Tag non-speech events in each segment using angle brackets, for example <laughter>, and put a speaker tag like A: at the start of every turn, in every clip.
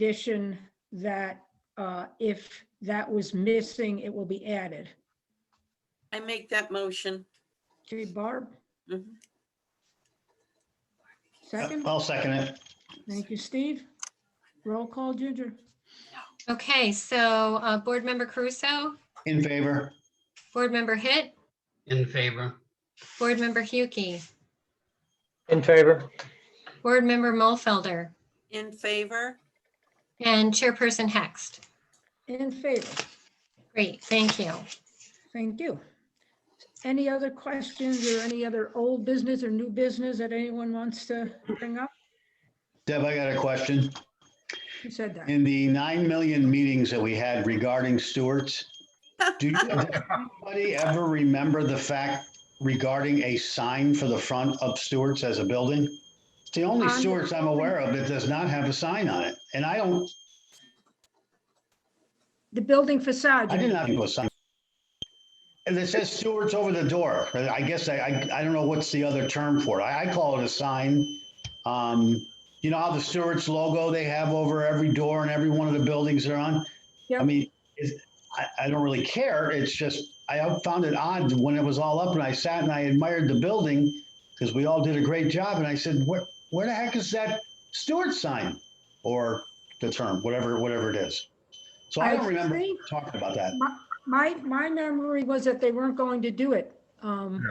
A: condition that uh, if that was missing, it will be added.
B: I make that motion.
A: Okay, Barb,
C: Mm-hmm.
B: Mhm.
A: second.
C: I'll second it.
A: Thank you, Steve. Roll call, Ginger.
D: Okay, so uh, Board Member Caruso,
C: In favor?
D: Board Member Hit,
E: In favor,
D: Board Member Huki,
F: In favor,
D: Board Member Mulfelder,
B: In favor?
D: and Chairperson Hext.
A: In favor.
D: Great, thank you.
A: Thank you. Any other questions or any other old business or new business that anyone wants to bring up?
C: Deb, I got a question.
A: Who said that?
C: In the 9 million meetings that we had regarding Stewart's, do you- does anybody ever remember the fact regarding a sign for the front of Stewart's as a building? It's the only
A: Um,
C: Stewart's I'm aware of that does not have a sign on it. And I don't,
A: The building facade.
C: I did not have a sign. And it says Stewart's over the door. I guess I, I, I don't know what's the other term for it. I, I call it a sign. Um, you know how the Stewart's logo they have over every door and every one of the buildings they're on? I
A: Yep.
C: mean, is, I, I don't really care. It's just, I found it odd when it was all up and I sat and I admired the building because we all did a great job. And I said, where, where the heck is that Stewart sign? Or the term, whatever, whatever it is. So I
A: I
C: don't remember
A: think-
C: talking about that.
A: My, my memory was that they weren't going to do it. um,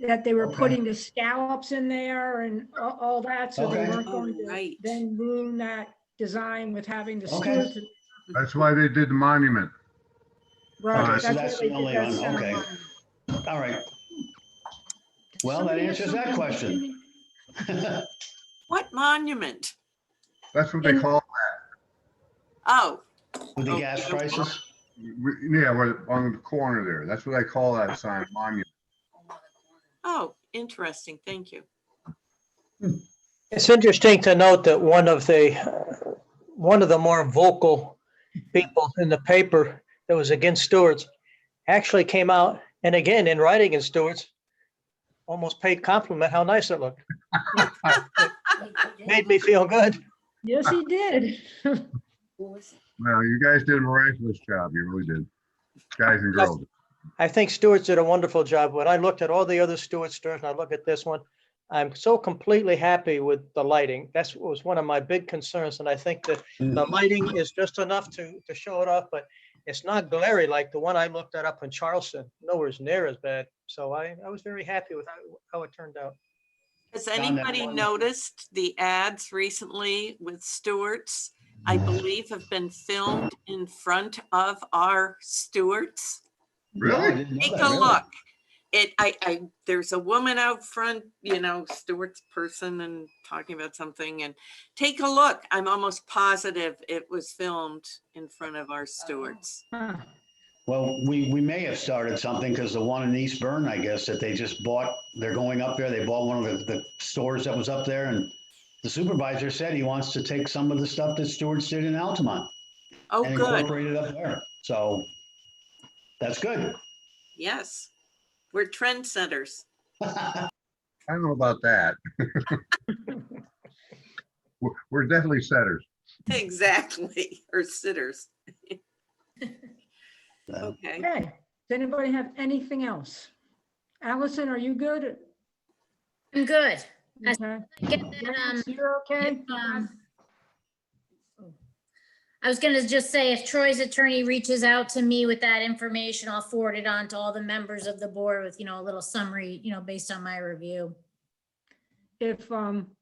A: That they were
C: Okay.
A: putting the scallops in there and a- all that, so they
C: Okay.
A: weren't
B: Oh,
A: going to
B: right.
A: then ruin that design with having the
C: Okay.
A: Stewart's.
G: That's why they did the monument.
A: Right,
G: Alright,
C: so
A: that's what
C: that's
A: they
C: the
A: did,
C: only
A: that's
C: one,
A: center
C: okay.
A: line.
C: All right. <laughs> Well, that
A: Somebody had
C: answers that
A: something,
C: question.
A: didn't
B: What monument?
G: That's what they
A: In-
G: call,
B: Oh,
C: With the gas prices.
G: yeah, where- on the corner there. That's what I call that sign, monument.
B: oh, interesting. Thank you.
F: it's interesting to note that one of the, uh, one of the more vocal people in the paper that was against Stewart's actually came out and again in writing in Stewart's, almost paid compliment how nice it looked. Made me feel good.
A: he? Yes, he did.
G: Well, you guys did a miraculous job. You really did. Guys and girls.
F: I think Stewart's did a wonderful job. When I looked at all the other Stewart stores and I look at this one, I'm so completely happy with the lighting. That's what was one of my big concerns. And I think that the lighting is just enough to, to show it off, but it's not glary like the one I looked at up in Charleston. Nowhere near as bad. So I, I was very happy with how, how it turned out.
B: Has
C: that
B: anybody
C: one.
B: noticed the ads recently with Stewart's? I believe have been filmed in front of our Stewart's.
C: No, I
G: Really?
C: didn't know
B: Take
C: that,
B: a
C: really.
B: look. It, I, I, there's a woman out front, you know, Stewart's person and talking about something and take a look. I'm almost positive it was filmed in front of our
C: Oh.
B: Stewart's.
A: Huh.
C: Well, we, we may have started something because the one in East Burn, I guess, that they just bought, they're going up there. They bought one of the, the stores that was up there and the supervisor said he wants to take some of the stuff that Stewart's did in Altamont
B: Oh,
C: and
B: good.
C: incorporate it up there. So that's good. <laughs>
B: Yes. We're trendsetters. <laughs>
G: I don't know about that. <laughs> We're- We're definitely setters.
B: Exactly. Or sitters.
C: Uh,
B: Okay.
A: Okay, does anybody have anything else? Allison, are you good?
H: I'm good. I-
A: Okay.
H: Get that, um,
A: Lance, You're okay?
H: if, um, I was gonna just say, if Troy's attorney reaches out to me with that information, I'll forward it on to all the members of the board with, you know, a little summary, you know, based on my review.
A: If, um,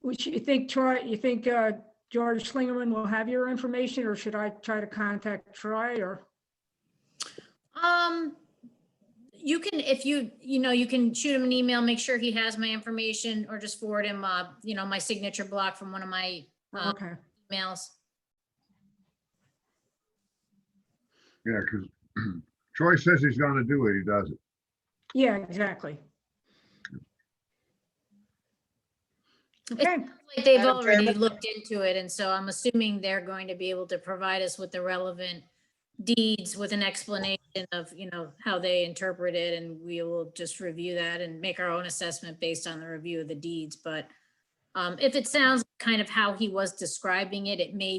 A: which you think Troy, you think, uh, George Slingerman will have your information or should I try to contact Troy or?
H: Um, you can, if you, you know, you can shoot him an email, make sure he has my information, or just forward him, uh, you know, my signature block from one of my Uh,
A: Okay,
H: emails.
G: Yeah, because <clears throat> Troy says he's gonna do it. He does it.
A: yeah, exactly. Okay,
H: Like they've
F: Madam
H: already
F: Chairman?
H: looked into it, and so I'm assuming they're going to be able to provide us with the relevant deeds with an explanation of, you know, how they interpret it, and we will just review that and make our own assessment based on the review of the deeds, but um, if it sounds kind of how he was describing it, it may